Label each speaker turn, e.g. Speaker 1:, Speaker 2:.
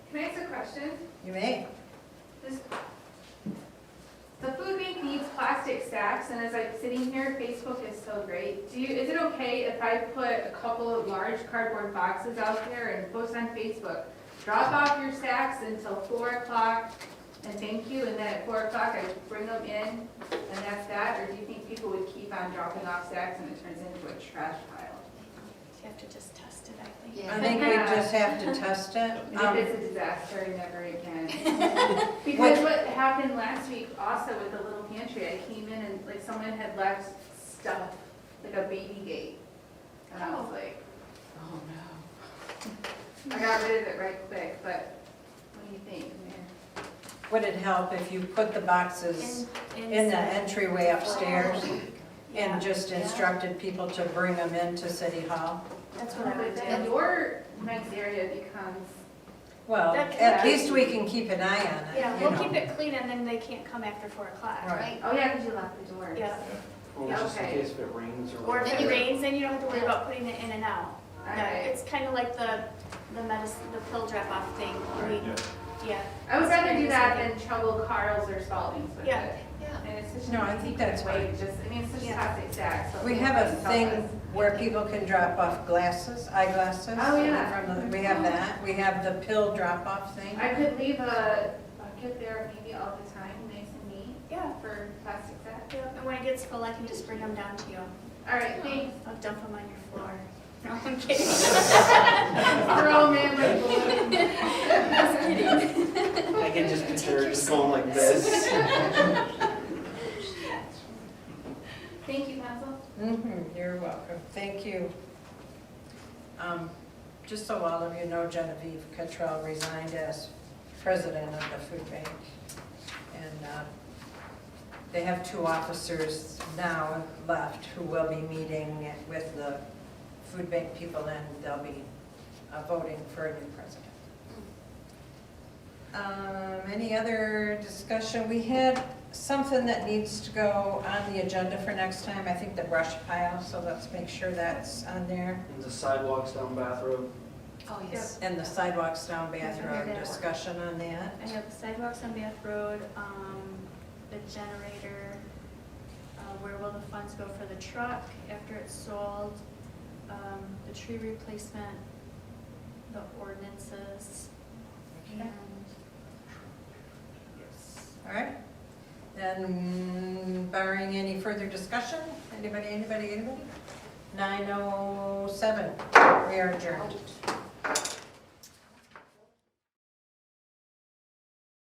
Speaker 1: questions?
Speaker 2: You may.
Speaker 1: This, the food bank needs plastic sacks, and as I'm sitting here, Facebook is so great. Do you, is it okay if I put a couple of large cardboard boxes out there and post on Facebook? Drop off your sacks until four o'clock, and thank you, and then at four o'clock, I bring them in, and that's that? Or do you think people would keep on dropping off sacks and it turns into a trash pile?
Speaker 3: You have to just test it, I think.
Speaker 2: I think we just have to test it.
Speaker 1: And
Speaker 2: Um,
Speaker 1: if it's a disaster, never again. Because what happened last week also with the little pantry, I came in and like someone had left stuff, like a baby gate. And I was like, oh no. I got rid of it right quick, but what do you think, Mayor?
Speaker 2: Would it help if you put the boxes in the entryway upstairs
Speaker 3: Yeah.
Speaker 2: and just instructed people to bring them into City Hall?
Speaker 3: That's what I would do.
Speaker 1: And your next area becomes,
Speaker 2: Well,
Speaker 3: That-
Speaker 2: at least we can keep an eye on it,
Speaker 3: Yeah,
Speaker 2: you
Speaker 3: we'll
Speaker 2: know.
Speaker 3: keep it clean and then they can't come after four o'clock.
Speaker 2: Right.
Speaker 1: oh yeah, because you locked the doors.
Speaker 3: Yeah.
Speaker 4: Or just in
Speaker 1: Okay.
Speaker 4: case if it rains or.
Speaker 3: Or if it
Speaker 4: whatever.
Speaker 3: rains, then you don't have to worry about putting it in and out.
Speaker 1: All
Speaker 3: Yeah,
Speaker 1: right.
Speaker 3: It's kind of like the, the medicine, the pill drop off thing. I
Speaker 4: Right,
Speaker 3: mean, yeah,
Speaker 4: yeah.
Speaker 1: I would rather do that than trouble Carl's or Spalding's with
Speaker 3: Yeah.
Speaker 1: it. And it's such
Speaker 2: No,
Speaker 1: an
Speaker 2: I
Speaker 1: easy
Speaker 2: think that's
Speaker 1: way
Speaker 2: fine.
Speaker 1: to just, I mean, it's such a
Speaker 3: Yeah.
Speaker 1: toxic stack, so.
Speaker 2: We have a
Speaker 1: it's
Speaker 2: thing
Speaker 1: helpless.
Speaker 2: where people can drop off glasses, eyeglasses.
Speaker 1: Oh, yeah.
Speaker 2: from the- We have that. We have the pill drop-off thing.
Speaker 1: I could leave a bucket there maybe all the time, nice and neat,
Speaker 3: yeah.
Speaker 1: for plastic sacks.
Speaker 3: yeah. And when it gets full, I can just bring them down to you.
Speaker 1: All right, thanks.
Speaker 3: I'll dump them on your floor. No, I'm kidding.
Speaker 1: Throw 'em in like balloons.
Speaker 4: I can just picture it just going like this.
Speaker 1: Thank you, Council.
Speaker 2: Mhm, You're welcome, thank you. Um, Just so all of you know, Genevieve Cottrell resigned as president of the food bank. And uh, they have two officers now left who will be meeting with the food bank people and they'll be uh, voting for a new president. Um, Any other discussion? We had something that needs to go on the agenda for next time, I think the brush pile, so let's make sure that's on there.
Speaker 4: And the sidewalks down Bath Road.
Speaker 5: Oh, yes.
Speaker 2: And the sidewalks down Bath Road, discussion on that.
Speaker 3: I have sidewalks on Bath Road, um, the generator, uh, where will the funds go for the truck after it's sold, um, the tree replacement, the ordinances, and. Yes.
Speaker 2: All right. And barring any further discussion, anybody, anybody, anybody? 9:07, we are adjourned.